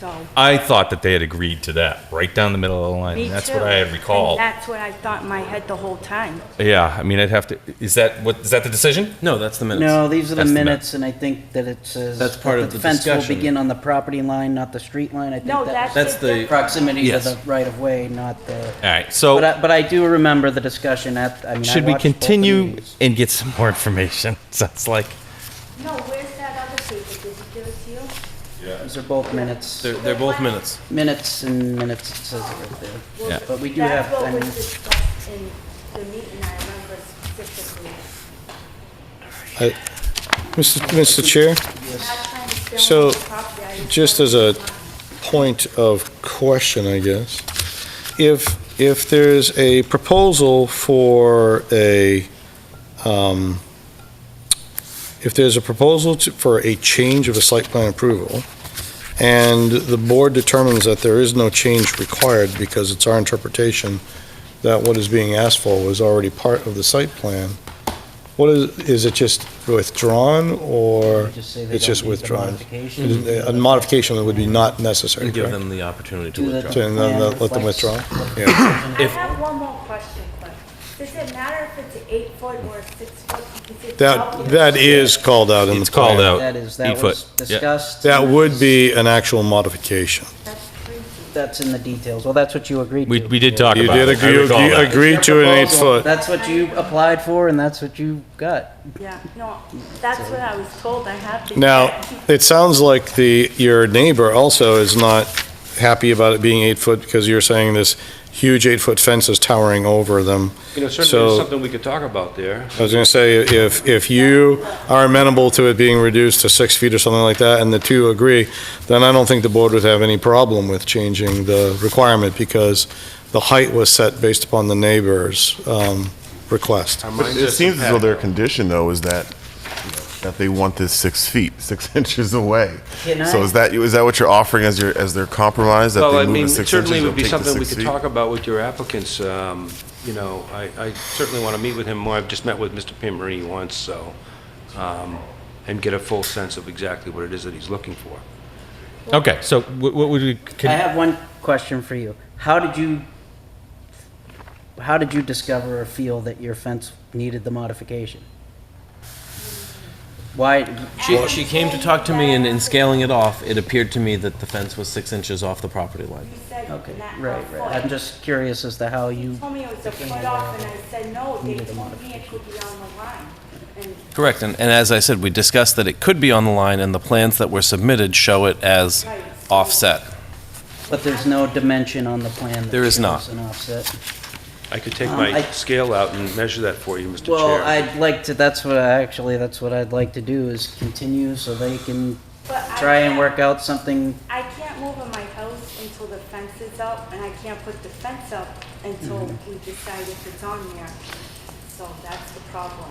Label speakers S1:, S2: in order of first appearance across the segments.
S1: so.
S2: I thought that they had agreed to that, right down the middle of the line.
S1: me
S2: That's
S1: too.
S2: what I had
S1: And
S2: recalled.
S1: That's what I thought in my head the whole time.
S2: Yeah, I mean, I'd have to, is that, what, is that the decision?
S3: No, that's the minutes.
S4: No, these are the
S2: That's the
S4: minutes, and I think that it says.
S3: That's part
S4: that
S3: of the
S4: fence will
S3: discussion.
S4: begin on the property line, not the street line. I think
S1: No, that's.
S4: that was
S3: That's the-
S4: proximity to
S3: Yes.
S4: the right-of-way, not the.
S2: All right,
S4: But
S2: so
S4: I, but I do remember the discussion at, I mean, I
S2: Oh. should we
S4: watched both the
S2: continue
S4: meetings.
S2: and get some more information? Sounds like,
S1: No, where's that other paper? Did you give it to you?
S4: These are both minutes,
S3: They're, they're both minutes.
S4: minutes and minutes, it says it right there.
S2: Yeah.
S4: But we do
S1: That's
S4: have, I
S1: what
S4: mean,
S1: was discussed in the meeting, I remember specifically.
S5: Mr. Mr. Chair,
S1: Not trying to steal
S5: So,
S1: my property, I
S5: just as a point of question, I guess. If, if there's a proposal for a, um, if there's a proposal to- for a change of a site plan approval, and the board determines that there is no change required because it's our interpretation that what is being asked for was already part of the site plan, what is, is it just withdrawn, or?
S4: we just say they
S5: It's
S4: don't
S5: just
S4: need the
S5: withdrawn. uh,
S4: modification.
S5: A modification would be not necessary,
S3: Give
S5: correct?
S3: them the opportunity to
S4: Do the-
S3: withdraw.
S4: to-
S5: So then they'll let them
S4: Reflects.
S5: withdraw? Yeah.
S1: I have one more question, but does it matter if it's eight foot or six foot? Is it
S5: That,
S1: calculated?
S5: that is called out in the
S2: It's called
S5: plan.
S2: out.
S4: that is, that
S2: Eight
S4: was
S2: foot, yeah.
S4: discussed.
S5: That would be an actual modification.
S1: That's crazy.
S4: That's in the details. Well, that's what you agreed
S2: we,
S4: to.
S2: we did talk
S5: You
S2: about
S5: did
S2: it. I
S5: agree,
S2: recall
S5: you
S2: that.
S5: agreed to an eight foot.
S4: That's what you applied for, and that's what you got.
S1: Yeah, no, that's what I was told, I have to.
S5: Now, it sounds like the, your neighbor also is not happy about it being eight foot because you're saying this huge eight foot fence is towering over them.
S6: You know, certainly
S5: So-
S6: there's something we could talk about there.
S5: I was gonna say, if, if you are amenable to it being reduced to six feet or something like that, and the two agree, then I don't think the board would have any problem with changing the requirement, because the height was set based upon the neighbor's, um, request.
S7: But it seems as though their condition, though, is that, you know, that they want this six feet, six inches away.
S4: Can
S7: So
S4: I-
S7: is that, is that what you're offering as your, as their compromise? that
S6: Well,
S7: they
S6: I
S7: move the
S6: mean,
S7: six
S6: certainly
S7: inches,
S6: would be
S7: they'll take the
S6: something we
S7: six
S6: could
S7: feet?
S6: talk about with your applicants. um, You know, I I certainly want to meet with him more. I've just met with Mr. Pammarini once, so, um, and get a full sense of exactly what it is that he's looking for.
S2: Okay, so wh- what would we,
S4: I
S2: can-
S4: have one question for you. How did you, how did you discover or feel that your fence needed the modification? Why,
S3: She, she came to talk to me, and in scaling it off, it appeared to me that the fence was six inches off the property line.
S1: You said not
S4: okay,
S1: a
S4: right, right. I'm
S1: foot.
S4: just curious as to how
S1: You
S4: you,
S1: told me it was a foot off, and I said, no, they told me it could be on the line. And
S3: Correct, and, and as I said, we discussed that it could be on the line, and the plans that were submitted show it as
S1: Right.
S3: offset.
S4: but there's no dimension on the plan. that
S3: There is not.
S4: shows An offset.
S6: I could take
S4: Um,
S6: my
S4: I-
S6: scale out and measure that for you, Mr. Chair.
S4: Well, I'd like to, that's what I, actually, that's what I'd like to do is continue so they can
S1: But I
S4: try and
S1: can't-
S4: work out something.
S1: I can't move in my house until the fence is up, and I can't put the fence up until we decide if it's on there. So that's the problem.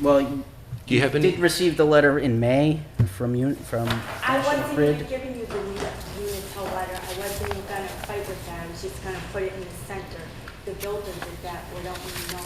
S4: Well, you
S6: Do you have any-
S4: did receive the letter in May from you, from
S1: I
S4: National
S1: wasn't
S4: Grid.
S1: even giving you the municipal letter, I wasn't even gonna fight with that, I was just gonna put it in the center. The builder did that without me knowing.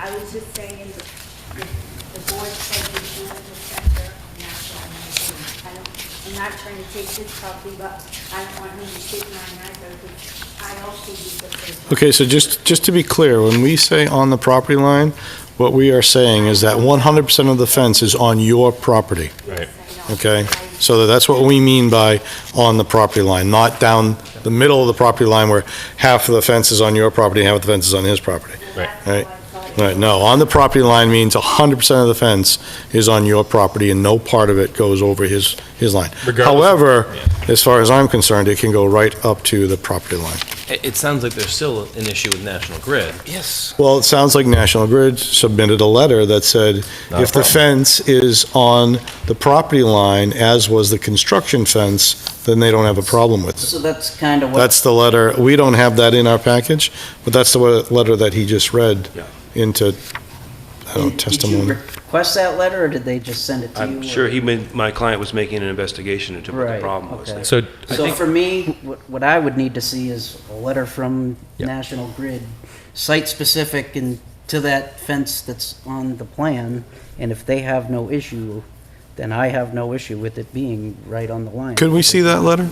S1: I was just saying, the the board said to do it in the center, and that's what I'm gonna do. I don't, I'm not trying to take his property, but I don't want him to take mine either, because I also use the first.
S5: Okay, so just, just to be clear, when we say on the property line, what we are saying is that 100% of the fence is on your property,
S2: Right.
S5: okay? So that's what we mean by on the property line, not down the middle of the property line where half of the fence is on your property, half of the fence is on his property. Right. Right, no, on the property line means 100% of the fence is on your property and no part of it goes over his, his line.
S2: Regardless of-
S5: However, as far as I'm concerned, it can go right up to the property line.
S3: It, it sounds like there's still an issue with National Grid. Yes.
S5: Well, it sounds like National Grid submitted a letter that said,
S2: Not a
S5: if the
S2: problem.
S5: fence is on the property line, as was the construction fence, then they don't have a problem with it.
S4: So that's kind of what.
S5: That's the letter, we don't have that in our package, but that's the wa- letter that he just read
S6: Yeah.
S5: into, I don't know,
S4: Did- Did you
S5: testimony.
S4: request that letter, or did they just send it to you?
S6: I'm sure
S4: or-
S6: he, made- my client was making an investigation into what the
S4: Right,
S6: problem was
S4: okay.
S6: there.
S2: so
S4: So for me, what, what I would need to see is a letter from National Grid, site-specific and to that fence that's on the plan, and if they have no issue, then I have no issue with it being right on the line.
S5: Could we see that letter?